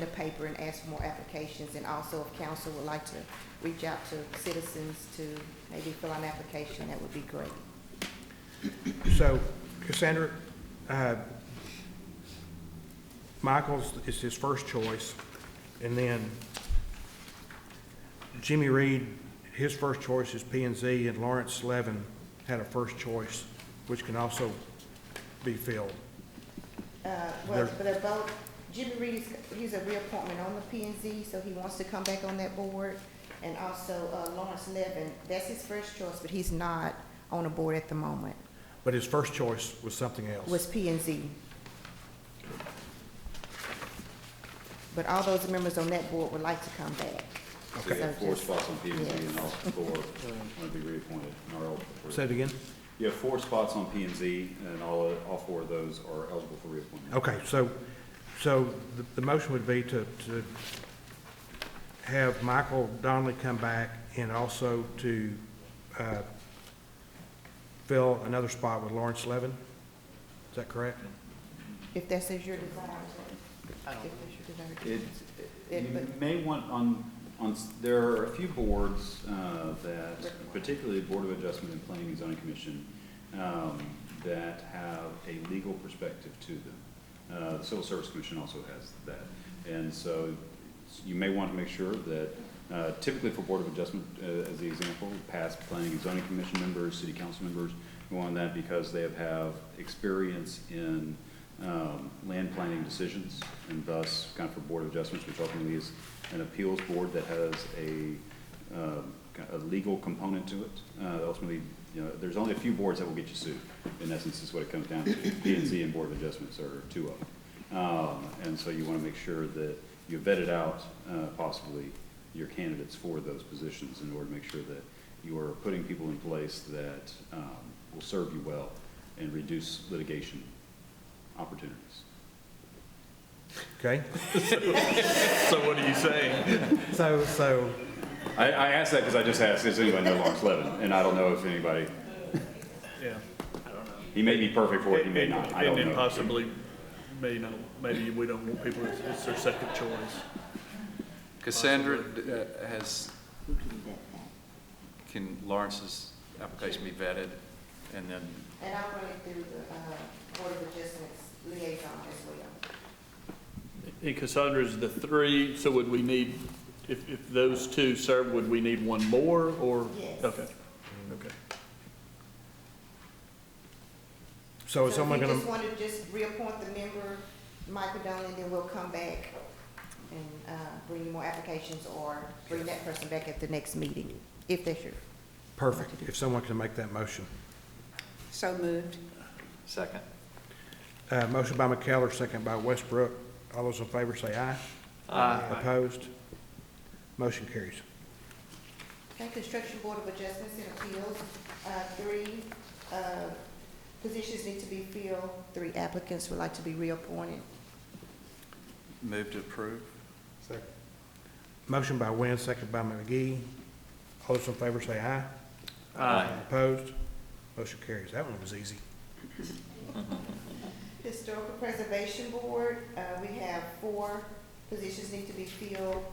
the paper and ask for more applications, and also if council would like to reach out to citizens to maybe fill out an application, that would be great. So Cassandra, uh, Michael's is his first choice, and then Jimmy Reed, his first choice is P and Z, and Lawrence Levin had a first choice, which can also be filled. Uh, well, There's- but they're both, Jimmy Reed, is- he's a reappointment on the P and Z, so he wants to come back on that board. And also uh, Lawrence Levin, that's his first choice, but he's not on a board at the moment, But his first choice was something else. was P and Z. But all those members on that board would like to come back. So you So have four just- spots on P and Z and Yes. also four want to be reappointed, and are eligible for Say it again? You have four spots on P and Z, and all, all four of those are eligible for reappointment. Okay, so, so the, the motion would be to, to have Michael Donnelly come back and also to, uh, fill another spot with Lawrence Levin? Is that correct? If that's as your desire. If that's your desire. It, It- you but- may want, on, on, s- there are a few boards, uh, that, particularly Board of Adjustment and Planning and Zoning Commission, um, that have a legal perspective to them. Uh, the Civil Service Commission also has that. And so you may want to make sure that, uh, typically for Board of Adjustment, uh, as the example, past Planning and Zoning Commission members, city council members go on that because they have, have experience in, um, land planning decisions, and thus, kind of for Board of Adjustments, which ultimately is an appeals board that has a, um, kind of a legal component to it. Uh, Ultimately, you know, there's only a few boards that will get you sued, in essence, is what it comes down to. P and Z and Board of Adjustments are two of them. Um, And so you want to make sure that you vetted out uh, possibly your candidates for those positions in order to make sure that you are putting people in place that um, will serve you well and reduce litigation opportunities. Okay, So what are you saying? so, so, I, I asked that because I just asked, does anybody know Lawrence Levin? And I don't know if anybody, Yeah. he may be perfect for it, he may And- not, I don't And then know. possibly, you know, maybe we don't want people, it's- it's their second choice. Cassandra, d- uh, has, can Lawrence's application be vetted? And then, And I'll run it through the, uh, Board of Adjustments liaison as well. And Cassandra's the three, so would we need, if, if those two serve, would we need one more, or? Yes. Okay, okay. Oh, so is if someone you gonna, just want to just reappoint the member, Michael Donnelly, then we'll come back and, uh, bring you more applications or bring that person back at the next meeting, if that's your. perfect, if someone can make that motion. So moved. second? Uh, motion by McKellar, second by Westbrook. All those in favor say aye. Aye. Opposed? Motion carries. Okay, Construction Board of Adjustments and Appeals, uh, three, uh, positions need to be filled. Three applicants would like to be reappointed. Move to approve? Motion by Wynn, second by McGee. All those in favor say aye. Aye. Opposed? Motion carries. That one was easy. Historical Preservation Board, uh, we have four positions need to be filled.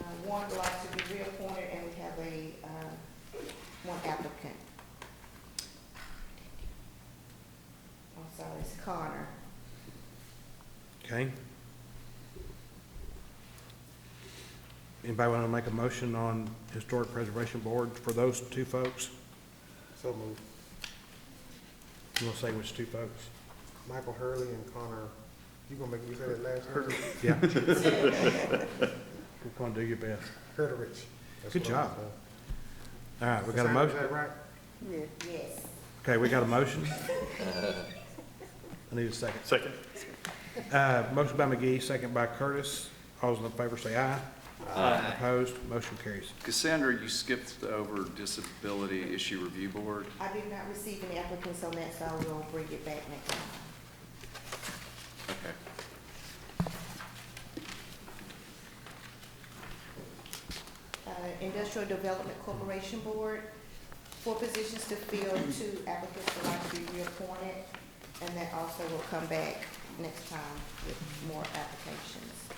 Uh, One would like to be reappointed, and we have a, uh, one applicant. I'm sorry, it's Connor. Okay? Anybody want to make a motion on Historic Preservation Board for those two folks? So moved. You want to say which two folks? Michael Hurley and Connor, you gonna make me say that last name? Yeah. You're going to do your best. Hurley. Good job. All right, we got a Is motion. that right? Yes. Okay, we got a motion. I need a second. Second? Uh, motion by McGee, second by Curtis. All those in favor say aye. Aye. Opposed? Motion carries. Cassandra, you skipped over Disability Issue Review Board. I did not receive any applicants on that, so I will bring it back next time. Okay. Uh, Industrial Development Corporation Board, four positions to fill, two applicants would like to be reappointed, and that also will come back next time with more applications.